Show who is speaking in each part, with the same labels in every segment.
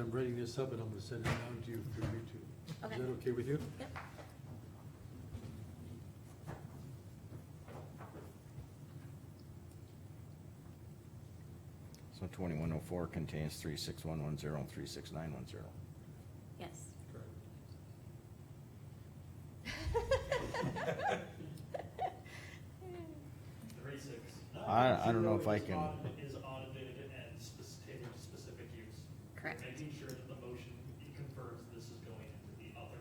Speaker 1: I'm writing this up and I'm gonna send it down to you through YouTube. Is
Speaker 2: Okay.
Speaker 1: that okay with you?
Speaker 2: Yep.
Speaker 3: So twenty-one oh four contains three six one one zero and three six nine one zero.
Speaker 2: Yes.
Speaker 4: Three six.
Speaker 3: I- I don't know if I can-
Speaker 4: Is audited and spec- tailored to specific use.
Speaker 2: Correct.
Speaker 4: Making sure that the motion confirms this is going into the other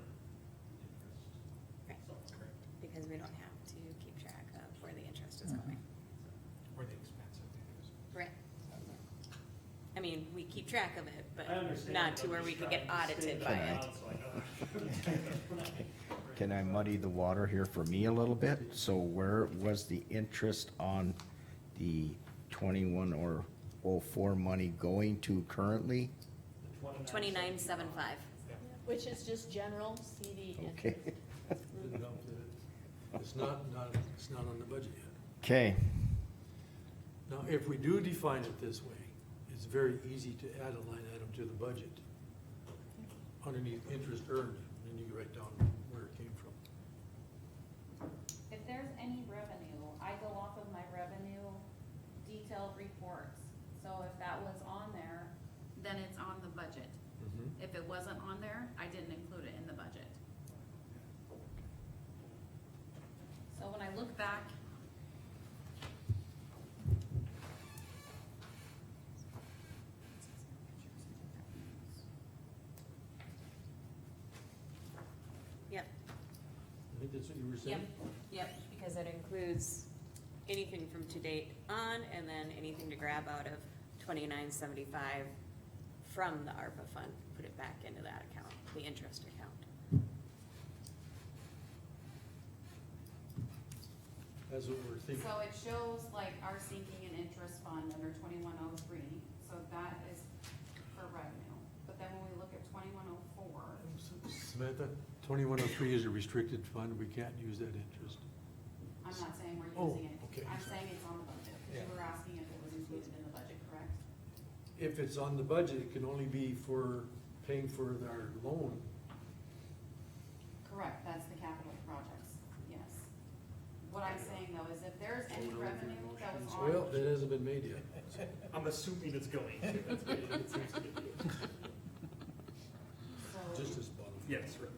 Speaker 4: interest.
Speaker 2: Right.
Speaker 4: So,
Speaker 2: Because we don't have to keep track of where the interest is going.
Speaker 5: Or the expense of the
Speaker 2: Right. I mean, we keep track of it,
Speaker 4: I
Speaker 2: but
Speaker 4: understand,
Speaker 2: not to
Speaker 4: I'm
Speaker 2: where
Speaker 4: just
Speaker 2: we could
Speaker 4: trying
Speaker 2: get
Speaker 4: to stay
Speaker 2: audited by
Speaker 4: that
Speaker 2: it.
Speaker 4: out so I know.
Speaker 3: Can I muddy the water here for me a little bit? So where was the interest on the twenty-one or oh four money going to currently?
Speaker 4: The 29
Speaker 2: Twenty-nine, seven, five.
Speaker 6: Which is just general CD
Speaker 3: Okay,
Speaker 6: interest.
Speaker 1: Put it up there. It's not, not, it's not on the budget yet.
Speaker 3: okay,
Speaker 1: Now, if we do define it this way, it's very easy to add a line item to the budget underneath interest earned, and you can write down where it came from.
Speaker 7: If there's any revenue, I go off of my revenue detailed reports. So if that was on there, then it's on the budget. If it wasn't on there, I didn't include it in the budget. So when I look back.
Speaker 2: Yep,
Speaker 1: I think that's what you were
Speaker 2: yep,
Speaker 1: saying?
Speaker 2: yep, because it includes anything from to date on and then anything to grab out of twenty-nine, seventy-five from the ARPA fund, put it back into that account, the interest account.
Speaker 1: That's what we're thinking.
Speaker 7: So it shows like our sinking and interest fund under twenty-one oh three, so that is for revenue. But then when we look at twenty-one oh four,
Speaker 1: Samantha, twenty-one oh three is a restricted fund, we can't use that interest.
Speaker 7: I'm not saying we're
Speaker 1: Oh,
Speaker 7: using
Speaker 1: okay.
Speaker 7: it, I'm saying it's on the budget, because
Speaker 1: Yeah.
Speaker 7: you were asking if it was included in the budget, correct?
Speaker 1: If it's on the budget, it can only be for paying for our loan.
Speaker 7: Correct, that's the capital projects, yes. What I'm saying though is if there's any revenue that was on.
Speaker 1: Well, that hasn't been made yet.
Speaker 4: I'm assuming it's going. to. That's what it seems to be.
Speaker 7: so-
Speaker 1: Just as bottom.
Speaker 4: Yes, right.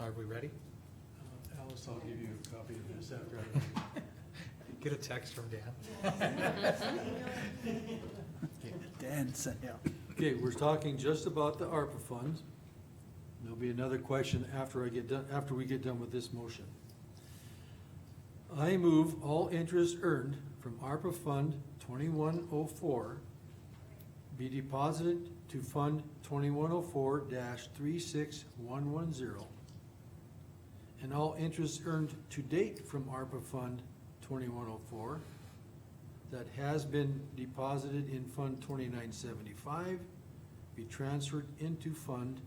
Speaker 5: Are we ready?
Speaker 1: Uh, Alice, I'll give you a copy of this after I,
Speaker 5: Get a text from Dan.
Speaker 8: Dan sent out.
Speaker 1: okay, we're talking just about the ARPA funds. There'll be another question after I get done, after we get done with this motion. I move all interest earned from ARPA Fund twenty-one oh four be deposited to Fund twenty-one oh four three six one one zero. And all interest earned to date from ARPA Fund twenty-one oh four that has been deposited in Fund twenty-nine seventy-five be transferred into Fund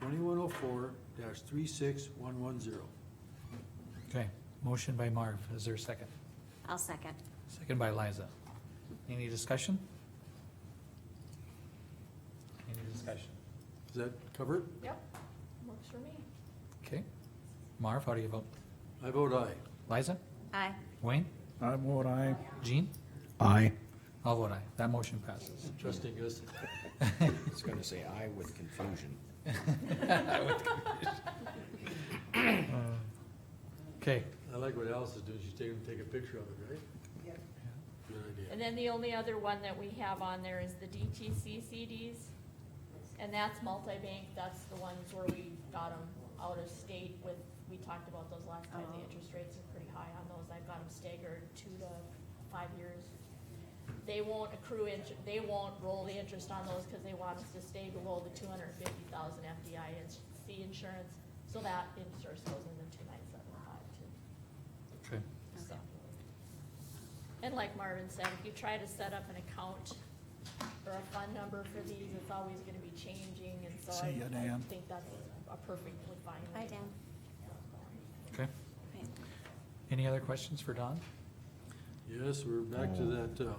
Speaker 1: twenty-one oh four three six one one zero.
Speaker 5: Okay, motion by Marv, is there a second?
Speaker 2: I'll second.
Speaker 5: Second by Liza. Any discussion? Any discussion?
Speaker 1: Does that cover it?
Speaker 6: Yep, works for me.
Speaker 5: Okay, Marv, how do you vote?
Speaker 1: I vote aye.
Speaker 5: Liza?
Speaker 2: Aye.
Speaker 5: Wayne?
Speaker 8: I vote aye.
Speaker 5: Jean?
Speaker 3: I
Speaker 5: I'll vote aye, that motion passes.
Speaker 1: Trusting us.
Speaker 3: was gonna say I with confusion.
Speaker 5: Okay,
Speaker 1: I like what Alice is doing. She's taking, take a picture of it, right? Good idea.
Speaker 6: And then the only other one that we have on there is the DTC CDs. And that's multi-bank, that's the ones where we got them out of state with, we talked about those last time, the
Speaker 7: Oh.
Speaker 6: interest rates are pretty high on those, I've got them staggered two to five years. They won't accrue inter, they won't roll the interest on those because they want us to stay below the two hundred and fifty thousand FDIC insurance, so that interest goes in the two nine seven five too.
Speaker 5: okay,
Speaker 6: So. And like Marvin said, if you try to set up an account or a fund number for these, it's always gonna be changing, and so I,
Speaker 8: See ya,
Speaker 6: I
Speaker 8: Dan.
Speaker 6: think that's a perfectly fine
Speaker 2: Bye,
Speaker 6: way.
Speaker 2: Dan.
Speaker 5: okay.
Speaker 2: Right.
Speaker 5: Any other questions for Don?
Speaker 1: Yes, we're back to that, uh,